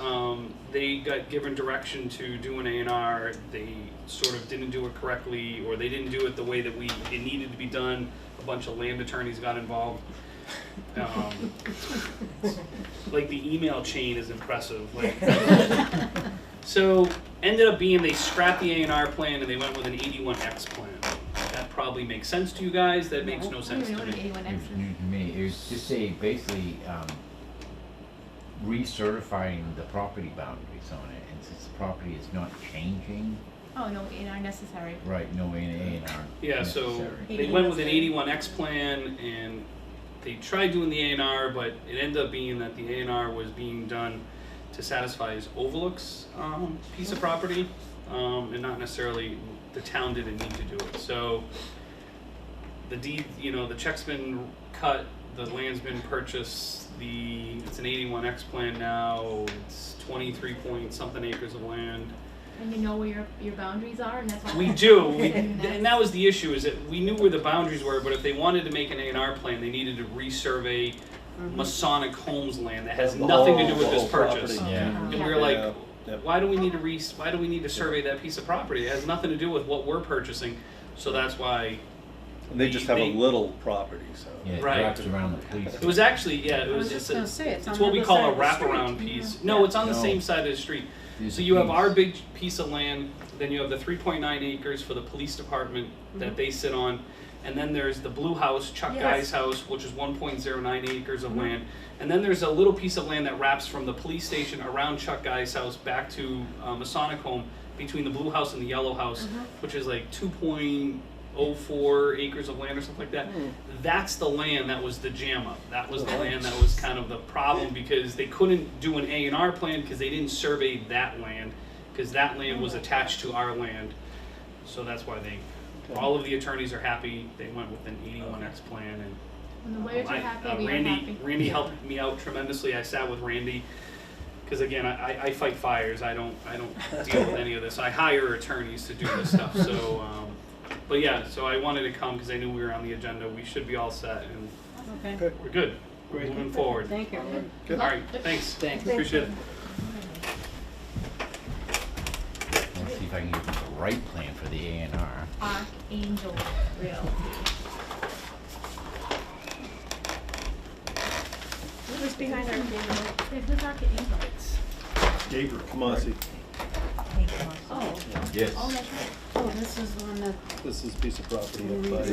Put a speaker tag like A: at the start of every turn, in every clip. A: Um, they got given direction to do an A and R. They sort of didn't do it correctly, or they didn't do it the way that we it needed to be done. A bunch of land attorneys got involved. Um, like the email chain is impressive. Like, so ended up being they scrapped the A and R plan and they went with an eighty-one X plan. That probably makes sense to you guys. That makes no sense to
B: I don't
A: me.
B: even know what
C: It
B: anyone
C: was
B: else
C: new to me. It was just a basically um, recertifying the property boundaries on it, and since the property is not changing,
B: is. Oh, no, in our necessary.
C: right? No A and A
A: Yeah, so
C: necessary.
A: they went with an eighty-one X plan and they tried doing the A and R, but it ended up being that the A and R was being done to satisfy his overlooks um, piece of property, um, and not necessarily the town didn't need to do it. So the deed, you know, the check's been cut, the land's been purchased, the it's an eighty-one X plan now. It's twenty-three point something acres of land.
B: And you know where your, your boundaries are, and that's why.
A: We do, we, and that was the issue, is that we knew where the boundaries were, but if they wanted to make an A and R plan, they needed to resurvey
D: Mm-hmm.
A: Masonic Homes land that has
E: The
A: nothing to
E: whole-
A: do with
E: the
A: this
E: whole
A: purchase.
E: property.
C: Yeah.
A: And we
B: Um, Yeah.
A: were like,
E: Yeah, yep.
A: why do we need to re, why do we need to survey that piece of property? It has nothing to do with what we're purchasing, so that's why,
E: And they just have
A: They-
E: a little property, so.
C: Yeah, it
A: Right.
C: wraps around the police.
A: it was actually, yeah, it
D: I
A: was,
D: was
A: it's
D: just
A: a,
D: gonna say, it's on
A: it's
D: the
A: what we
D: other
A: call
D: side
A: a
D: of the street.
A: wraparound piece. No, it's on the
C: No.
A: same side of the street.
C: There's
A: So
C: a
A: you have
C: piece.
A: our big piece of land, then you have the three point nine acres for the police department that they sit on. And then there's the blue house, Chuck
D: Yes.
A: Guy's house, which is one point zero nine acres of land. And then there's a little piece of land that wraps from the police station around Chuck Guy's house back to uh, Masonic Home between the blue house and the yellow house, which is like two point oh four acres of land or something like that. That's the land that was the jam up. That was the land that was kind of the problem because they couldn't do an A and R plan because they didn't survey that land because that land was attached to our land. So that's why they, all of the attorneys are happy. They went with an eighty-one X plan and
B: When the lawyers are
A: I-
B: happy,
A: uh,
B: we
A: Randy,
B: are happy.
A: Randy helped me out tremendously. I sat with Randy because again, I, I- I fight fires. I don't I don't deal with any of this. I hire attorneys to do this stuff. So, um, but yeah, so I wanted to come because I knew we were on the agenda. We should be all set and
D: Okay,
A: we're good. We're moving forward.
D: thank you.
A: All right, thanks.
D: Thanks.
A: Appreciate it.
C: Let's see if I can get the right plan for the A and R.
B: Archangel Realty.
D: It was behind our camera.
B: Hey, Who's Archangel?
E: Gabriel Kamasi,
B: Oh,
C: Yes.
B: oh, that's right.
D: Oh, this is the one that,
E: this is a piece of property.
C: Yeah,
E: up by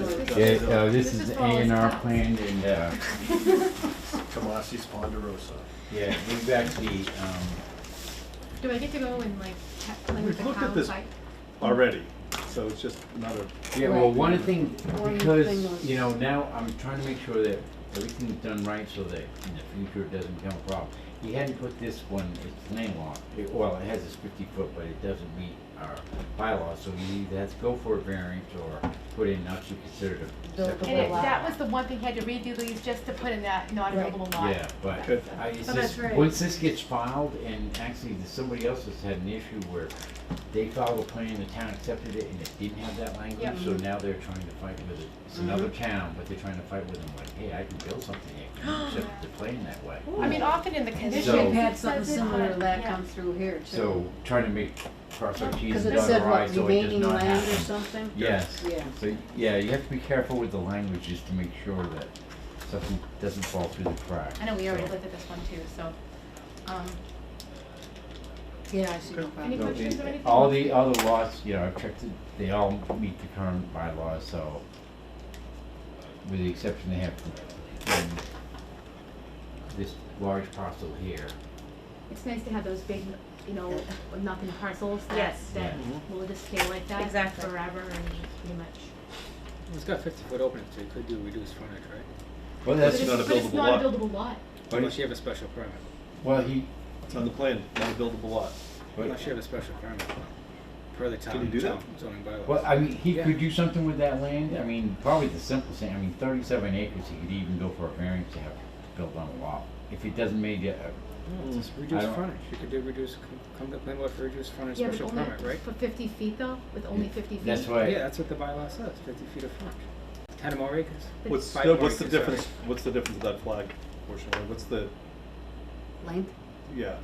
C: uh, this
B: This
C: is
B: is
C: the
B: for
C: A
B: all
C: and
B: his
C: R
B: house.
C: plan and, uh,
E: Kamasi's Ponderosa.
C: yeah, we've actually, um,
B: Do I get to go and like, ha- like
E: We've
B: the
E: looked at
B: house,
E: this.
B: like,
E: Already, so it's just another,
C: Yeah, well,
D: Right.
C: one thing,
D: One thing
C: because,
D: was-
C: you know, now I'm trying to make sure that everything's done right so that in the future it doesn't become a problem. He hadn't put this one, it's landlocked, It- well, it has this fifty foot, but it doesn't meet our bylaws, so he either has to go for a variance or put in not to consider it a
D: Buildable
C: separate
B: And it-
D: lot.
C: lot.
B: that was the one thing, had to redo these just to put in that not
D: Right.
B: available lot.
C: Yeah, but
E: Good.
C: I, it's
D: Oh, that's
C: just,
D: right.
C: once this gets filed, and actually, there's somebody else has had an issue where they filed a plan, the town accepted it, and it didn't have that language, so now they're trying to fight with it. It's
B: Mm-hmm.
C: another town, but they're trying to fight with them, like, hey, I can build something here, can you accept the plan that way?
B: I mean, often in the conditions.
C: So-
D: we've had
B: it
D: something
B: says it,
D: similar to
B: but-
D: that
B: yeah.
D: come through here too.
C: So, trying to make, cross our T's
D: Because
C: and
D: it
C: dot
D: said
C: our
D: what,
C: I's, so it does
D: remaining
C: not
D: land or
C: happen.
D: something?
C: Yes,
D: Yeah.
C: so, yeah, you have to be careful with the language just to make sure that something doesn't fall through the cracks.
B: I know, we already
C: so.
B: looked at this one too, so, um,
D: Yeah, I see no problem.
B: Any
C: No,
B: questions
C: they-
B: or anything?
C: All the other laws, you know, I've checked it, they all meet the current bylaws, so with the exception they have um, this large parcel here.
B: it's nice to have those big, you know, nothing parcels that,
F: Yes.
B: that
C: Yeah.
B: will just stay like that
F: Exactly.
B: forever and pretty much.
G: It's got fifty foot opening, so you could do reduced frontage, right?
C: Well,
B: But
C: that's,
B: it's-
E: not a buildable
B: But it's
E: lot.
B: not a buildable lot.
C: but
G: Unless
C: it's,
G: you have a special permit,
C: well, he,
E: it's on the plan, not a buildable lot.
C: but,
G: unless you have a special permit, per the town,
E: you do that?
G: town zoning bylaws.
C: well, I mean, he could do something with that land, I mean, probably the simplest thing, I mean, thirty-seven acres, he could even go for a variance to have built on a lot. If it doesn't make it, a-
G: No, it's
C: I
G: reduced
C: don't-
G: frontage, you could do reduced, come- come to plan board for reduced frontage
B: Yeah,
G: special
B: but only
G: permit, right?
B: for fifty feet though, with only fifty feet.
C: that's
G: Yeah,
C: why,
G: that's what the bylaw says, fifty feet of frontage, ten or more acres.
E: What's,
G: Five
E: no, what's the
G: acres, sorry.
E: difference, what's the difference of that flag portion, Like, what's the,
D: Length?
E: yeah,